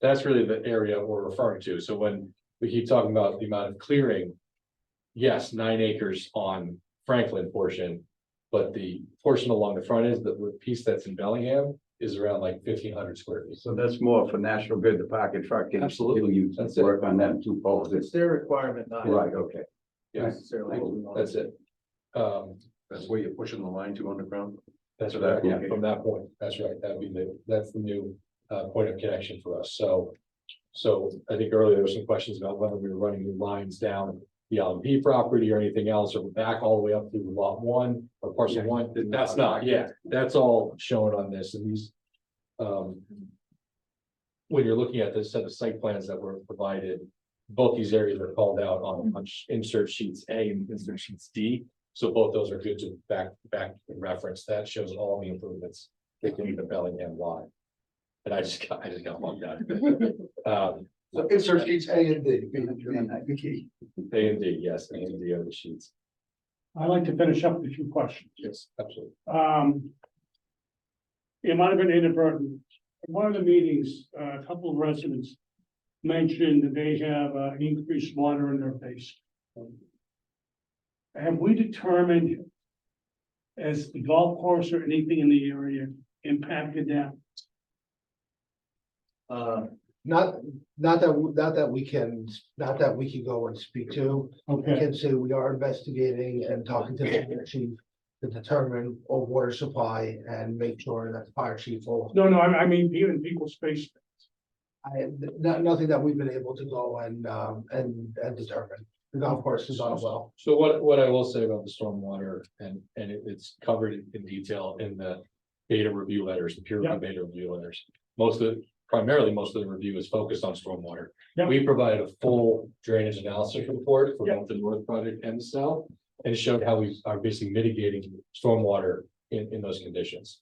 that's really the area we're referring to. So when we keep talking about the amount of clearing. Yes, nine acres on Franklin portion, but the portion along the front is that the piece that's in Bellingham is around like fifteen hundred square feet. So that's more for National Grid, the park and truck. can Absolutely. You That's it. work on them two poles. It's their requirement, not Right, okay. Yes, necessarily. what we want. that's it. Um, That's where you're pushing the line to underground. That's So right, that- yeah, okay. from that point, that's right, that'd be the, that's the new uh point of connection for us, so. So I think earlier there were some questions about whether we were running new lines down the LMP property or anything else, or back all the way up through lot one or parcel Yeah. one, that's not, yeah, that's all shown on this and these. Um. When you're looking at the set of site plans that were provided, both these areas are called out on on insert sheets A and insert sheets D. So both those are good to back, back reference. That shows all the improvements that can be the Bellingham line. And I just got, I just got logged out. Um, So insert sheets A and D. B and D. A and D, yes, A and D are the sheets. I'd like to finish up with a few questions. Yes, absolutely. Um. It might have been inadvertent. In one of the meetings, uh, a couple of residents mentioned that they have uh, increased water in their base. Have we determined as the golf course or anything in the area impacted that? Uh, Not, not that, w- not that we can, not that we can go and speak to, I Okay, can say we are investigating and talking to the fire chief. To determine a water supply and make sure that the fire chief will, no, no, I, I mean, even equal space. I, no- nothing that we've been able to go and, um, and, and determine. The golf course is on a well. So what, what I will say about the stormwater and, and it- it's covered in- in detail in the beta review letters, the peer review Yeah. beta review letters. Most of, primarily, most of the review is focused on stormwater. Yeah. We provided a full drainage analysis report for Yeah. both the north project and the south. And it showed how we are basically mitigating stormwater in, in those conditions.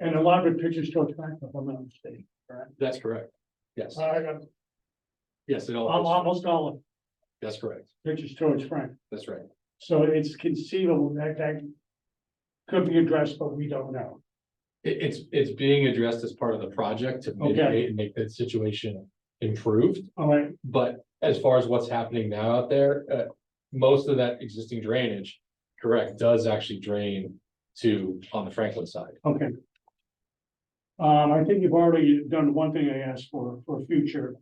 And a lot of the pictures don't track, if I'm not mistaken. That's correct. Yes, Uh, yes, it all, Almost all of that's correct. the pictures towards Frank. That's right. So it's conceivable that that could be addressed, but we don't know. It, it's, it's being addressed as part of the project to Okay. mitigate and make the situation improved. All right, But as far as what's happening now out there, uh, most of that existing drainage, correct, does actually drain to, on the Franklin side. okay. Um, I think you've already done one thing I asked for, for future,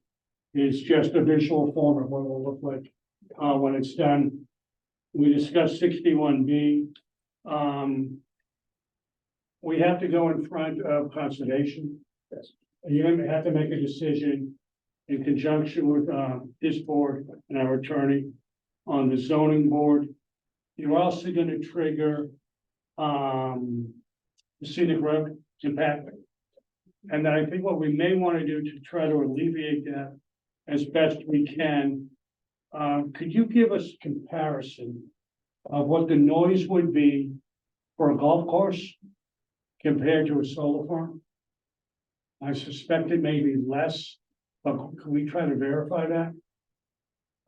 is just a visual form of what it will look like, uh, when it's done. We discussed sixty-one B, um. We have to go in front of conservation. Yes. You're gonna have to make a decision in conjunction with, uh, this board and our attorney on the zoning board. You're also gonna trigger, um, the scenic road impact. And then I think what we may want to do to try to alleviate that as best we can. Um, could you give us comparison of what the noise would be for a golf course compared to a solar farm? I suspect it may be less, but can we try to verify that?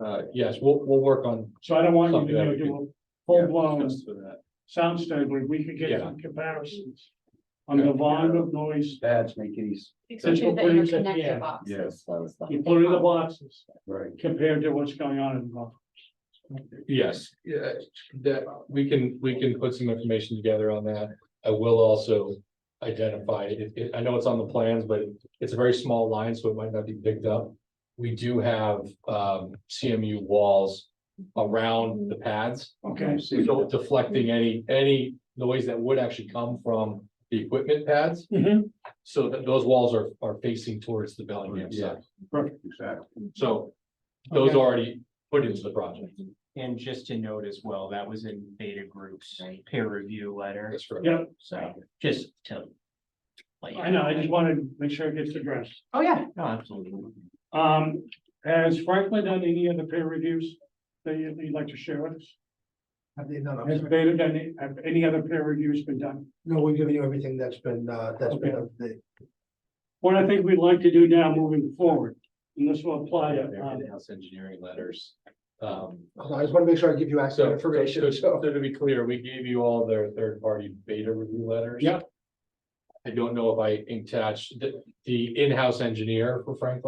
Uh, yes, we'll, we'll work on. So I don't want you Something that to we do could- a full blown discuss for that. sound study, but we could get Yeah. some comparisons on the volume of noise That's make it easy. Since we're Especially the putting it- yeah, interconnected boxes. those the- Including the boxes Right. compared to what's going on in the golf. Yes, yeah, that, we can, we can put some information together on that. I will also identify, it, it, I know it's on the plans, but it's a very small line, so it might not be picked up. We do have, um, CMU walls around the pads. Okay, So deflecting any, any noise that would actually come from the equipment pads, Mhm. so that those walls are, are facing towards the Bellingham side. Exactly. So those Okay. are already put into the project. And just to note as well, that was in Beta Group's peer review letter, That's right. yeah, so just to. like- I know, I just wanted to make sure it gets addressed. Oh, yeah, no, absolutely. Um, has Franklin done any of the peer reviews that you- you'd like to share with us? Have they, no, Has no, Beta done, any- have any other peer reviews been done? no, we've given you everything that's been, uh, that's been, up to date. What I think we'd like to do now moving forward, and this will apply, Yeah, uh, they're in-house engineering letters. Um, Hold on, I just want to make sure I give you so, accurate information, information, so so. to be clear, we gave you all their third-party beta review letters. Yeah. I don't know if I attached the, the in-house engineer for Franklin